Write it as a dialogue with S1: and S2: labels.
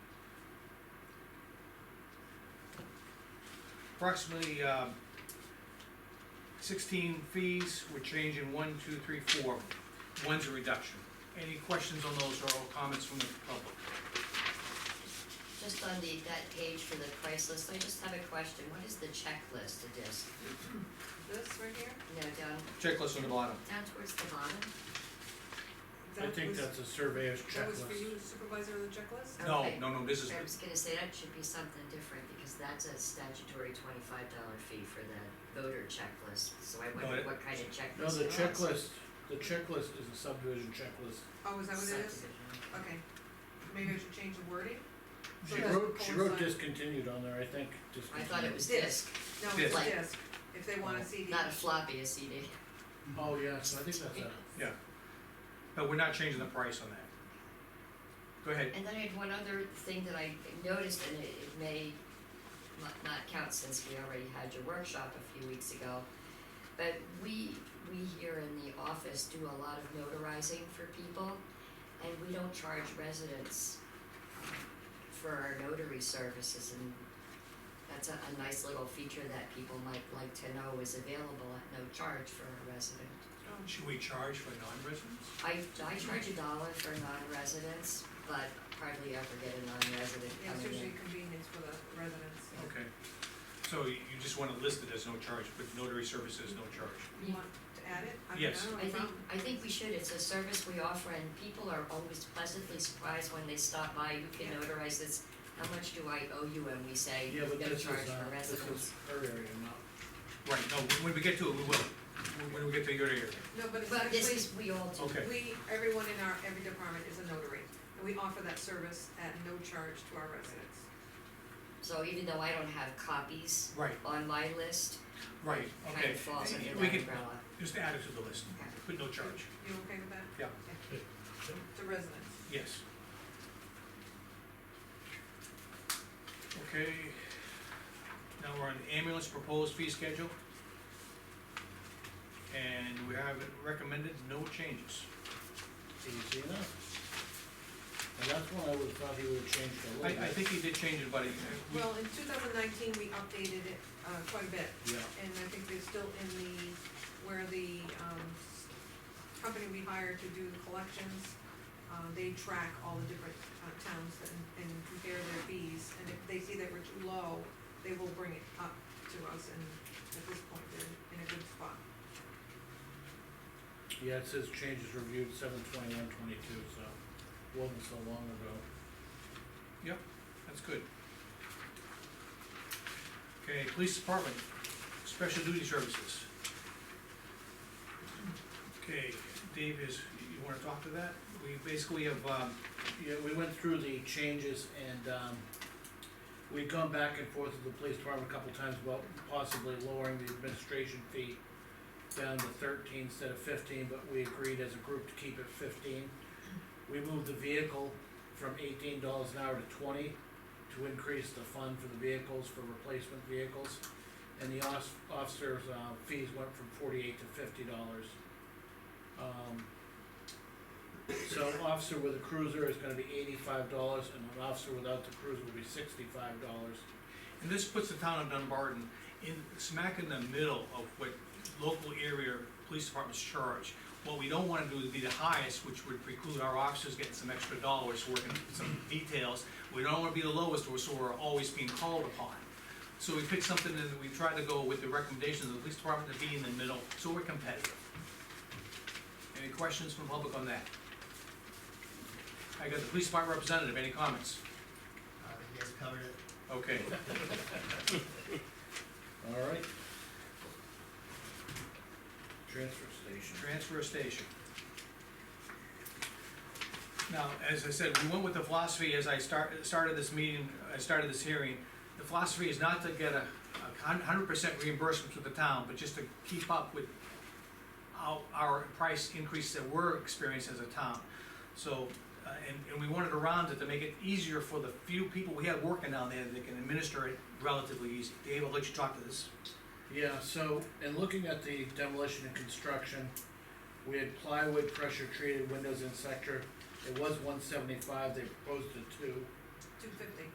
S1: approximately, um, sixteen fees, we're changing one, two, three, four. One's a reduction. Any questions on those or comments from the public?
S2: Just on the, that page for the price list, I just have a question, what is the checklist of this?
S3: This right here,
S2: No, down,
S1: Checklist on the bottom.
S2: down towards the bottom?
S4: I
S3: that
S4: think
S3: was,
S4: that's a surveyor's
S3: that was for
S4: checklist.
S3: you supervisor of the checklist?
S1: No,
S2: Okay.
S1: no, no, this is,
S2: I was gonna say, that should be something different, because that's a statutory twenty-five dollar fee for the voter checklist, so I wonder
S1: it-
S2: what kind of
S4: No,
S2: checklist
S4: the
S2: it was.
S4: checklist, the checklist is a subdivision checklist.
S3: Oh, is that what it is?
S2: Subdivision.
S3: Okay, maybe I should change the wording? So
S4: She
S3: that's
S4: wrote, she wrote
S3: coincide-
S4: discontinued on there, I think,
S2: I
S4: discontinued.
S2: thought it was
S3: Disc.
S2: disc,
S3: No,
S1: Disc.
S3: it's disc, if they want a CD.
S2: Oh, not a floppy, a CD.
S4: Oh, yeah, so I think that's a,
S1: but we're not changing the price on that. Go ahead.
S2: And then I had one other thing that I noticed, and it, it may not, not count since we already had your workshop a few weeks ago. But we, we here in the office do a lot of notarizing for people, and we don't charge residents for our notary services, and that's a, a nice little feature that people might like to know is available at no charge for a resident.
S3: Oh,
S1: Should we charge for non-residents?
S2: I, I charge a dollar for non-residents, but hardly ever get a non-resident
S3: Yeah, it's
S2: coming
S3: usually
S2: in.
S3: convenience for the residents.
S1: Okay. So you you just wanna list it as no charge, but notary services, no charge.
S3: You want to add it? I mean,
S1: Yes.
S3: I don't
S2: I
S3: have a
S2: think,
S3: problem.
S2: I think we should, it's a service we offer and people are always pleasantly surprised when they stop by, you can
S3: Yeah.
S2: notarize this, how much do I owe you, and we say,
S4: yeah,
S2: no
S4: but
S2: charge
S4: this is, uh,
S2: for
S4: this
S2: residents.
S4: is her area, not.
S1: Right, no, when we get to it, we will. When- When we get to your area.
S3: No, but it's
S2: Well, this is, we
S3: actually,
S2: all do,
S1: Okay.
S3: we, everyone in our, every department is a notary, and we offer that service at no charge to our residents.
S2: so even though I don't have copies
S1: Right,
S2: on my list,
S1: right,
S2: kind
S1: okay.
S2: of falls under that
S1: We
S2: umbrella.
S1: could just add it to the list,
S2: Okay.
S1: put no charge,
S3: You okay with that?
S1: Yeah.
S3: Okay. To residents.
S1: yes. Okay, now we're on ambulance proposed fee schedule. And we have it recommended no changes.
S4: Do you see that? And that's one I would've thought he would've changed
S1: I,
S4: a little bit.
S1: I think he did change it, but he- we-
S3: Well, in two thousand nineteen, we updated it, uh, quite a bit,
S4: Yeah,
S3: and I think they're still in the, where the, um, s- company we hired to do the collections, uh, they track all the different, uh, towns and, and compare their fees, and if they see that we're too low, they will bring it up to us, and at this point, they're in a good spot.
S4: yeah, it says changes reviewed seven twenty-one twenty-two, so wasn't so long ago.
S1: That's good. Okay, police department, special duty services. Okay, Dave is, you wanna talk to that? We basically have, um,
S4: Yeah, we went through the changes and, um, we've gone back and forth with the police department a couple times about possibly lowering the administration fee down to thirteen instead of fifteen, but we agreed as a group to keep it fifteen. We moved the vehicle from eighteen dollars an hour to twenty to increase the fund for the vehicles, for replacement vehicles. And the os- officers' uh, fees went from forty-eight to fifty dollars. Um, so an officer with a cruiser is gonna be eighty-five dollars, and an officer without the cruiser will be sixty-five dollars.
S1: and this puts the town of Dunbarton in, smack in the middle of what local area police departments charge. What we don't wanna do is be the highest, which would preclude our officers getting some extra dollars, working some details. We don't wanna be the lowest, or so we're always being called upon. So we picked something that we tried to go with the recommendations of the police department to be in the middle, so we're competitive. Any questions from public on that? I got the police department representative, any comments?
S5: Uh, you guys covered it.
S1: Okay,
S4: Alright. Transfer station.
S1: transfer station. Now, as I said, we went with the philosophy, as I start, started this meeting, I started this hearing, the philosophy is not to get a, a hundred percent reimbursement to the town, but just to keep up with our, our price increase that we're experiencing as a town. So, uh, and, and we wanted to round it to make it easier for the few people we have working down there that can administer it relatively easy. Dave, I'll let you talk to this.
S4: Yeah, so, in looking at the demolition and construction, we had plywood pressure treated windows in sector, it was one seventy-five, they proposed a two.